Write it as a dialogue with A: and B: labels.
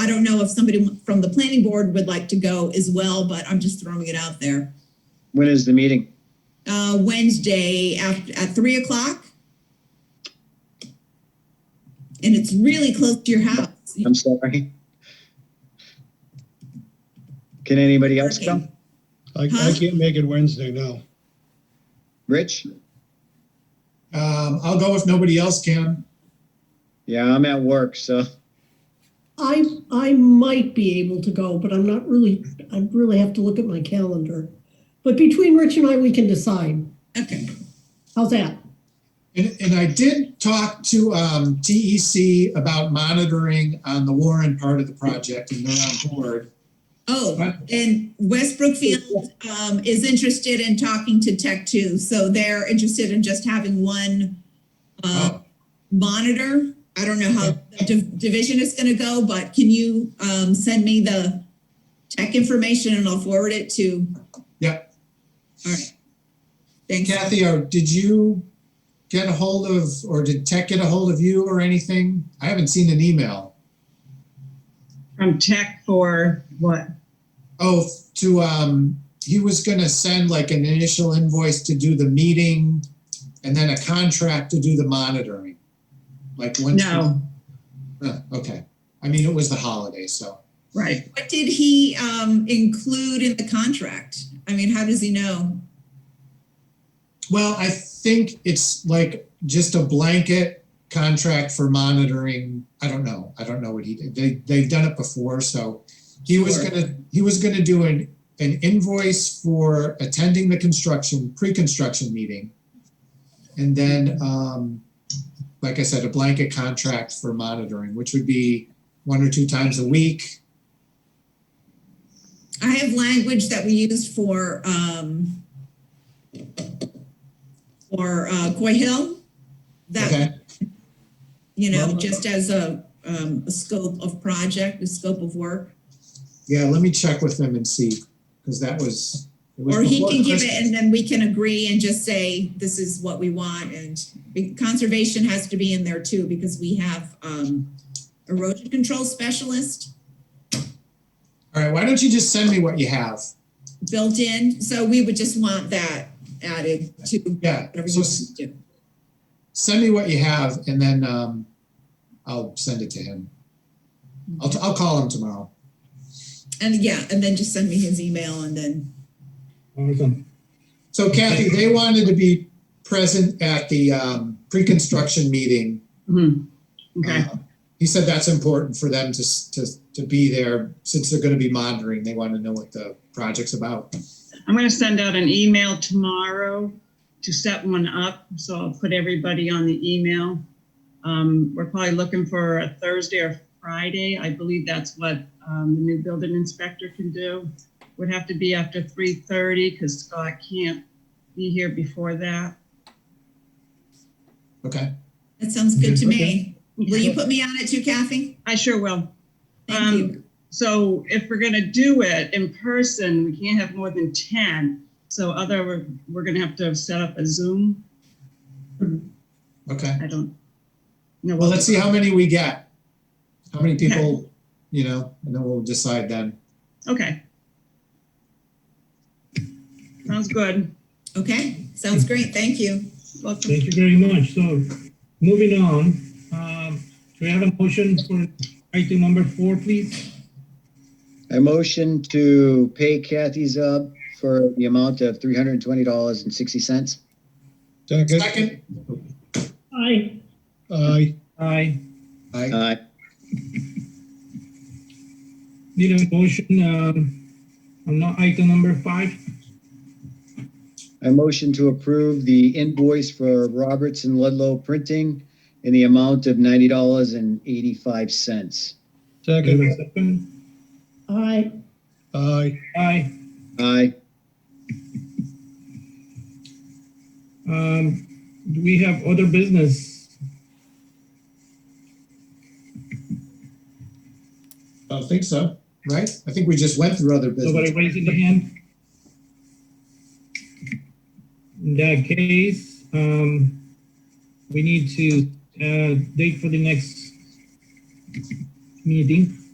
A: I don't know if somebody from the planning board would like to go as well, but I'm just throwing it out there.
B: When is the meeting?
A: Uh, Wednesday after, at three o'clock. And it's really close to your house.
B: I'm sorry. Can anybody else
A: Working.
B: come?
C: I, I
A: Huh?
C: can't make it Wednesday, no.
B: Rich?
D: Um, I'll go if nobody else can.
B: Yeah, I'm at work, so
E: I, I might be able to go, but I'm not really, I really have to look at my calendar. But between Rich and I, we can decide.
A: Okay,
E: How's that?
D: And, and I did talk to um, TEC about monitoring on the Warren part of the project, and they're on board.
A: oh, and West Brookfield, um, is interested in talking to Tech Two, so they're interested in just having one, uh,
D: Oh,
A: monitor. I don't know how the div- division is gonna go, but can you, um, send me the tech information and I'll forward it to?
D: Yep.
A: All right. Thanks.
D: Kathy, or did you get a hold of, or did Tech get a hold of you or anything? I haven't seen an email.
F: From tech for what?
D: Oh, to um, he was going to send like an initial invoice to do the meeting, and then a contract to do the monitoring. Like when?
F: No,
D: Uh, okay. I mean, it was the holiday, so.
F: right.
A: What did he um include in the contract? I mean, how does he know?
D: Well, I think it's like just a blanket contract for monitoring. I don't know. I don't know what he did. They they've done it before, so he was
A: Sure.
D: gonna he was gonna do an an invoice for attending the construction pre-construction meeting, and then um, like I said, a blanket contract for monitoring, which would be one or two times a week.
A: I have language that we used for um for uh Coy Hill. That,
D: Okay.
A: you know, just as a um a scope of project, a scope of work.
D: Yeah, let me check with him and see because that was. It was
A: Or he
D: before
A: can give it
D: Christmas.
A: and then we can agree and just say, this is what we want and be- conservation has to be in there too, because we have um erosion control specialist.
D: All right. Why don't you just send me what you have?
A: built in, so we would just want that added to
D: Yeah,
A: whatever you
D: so
A: want
D: s-
A: to do.
D: send me what you have and then um, I'll send it to him. I'll, I'll call him tomorrow.
A: And yeah, and then just send me his email and then,
C: Awesome.
D: So Kathy, they wanted to be present at the um, pre-construction meeting.
A: Hmm.
F: Mhm. Okay,
D: Um, He said that's important for them to, s- to, to be there since they're gonna be monitoring. They want to know what the project's about.
F: I'm gonna send out an email tomorrow to set one up, so I'll put everybody on the email. Um, we're probably looking for a Thursday or Friday, I believe that's what, um, the new building inspector can do. Would have to be after three thirty, cause Scott can't be here before that.
D: Okay.
A: that sounds good to me.
D: Okay.
A: Will you put me on it too, Kathy?
F: I sure will.
A: Thank
F: Um,
A: you.
F: So if we're gonna do it in person, we can't have more than ten. So other, we're, we're gonna have to set up a Zoom.
D: Okay.
F: I don't. know.
D: Well, let's see how many we get. How many people, you know, and then we'll decide then.
F: Okay. Sounds good.
A: Okay, sounds great, thank you.
F: Welcome.
G: Thank you very much. So moving on, um, do we have a motion for item number four, please?
B: I motion to pay Kathy Zub for the amount of three hundred and twenty dollars and sixty cents.
C: Second,
D: Second,
E: I,
C: aye,
G: I
D: I,
B: Uh,
G: need a motion, um, on not item number five.
B: I motion to approve the invoice for Robertson Ludlow Printing in the amount of ninety dollars and eighty-five cents.
G: Do we
C: second,
G: have a second?
E: I,
C: aye,
G: Aye.
B: Aye.
G: Um, do we have other business?
D: don't think so, right? I think we just went through other business.
G: Nobody raising their hand? In that case, um, we need to, uh, date for the next meeting.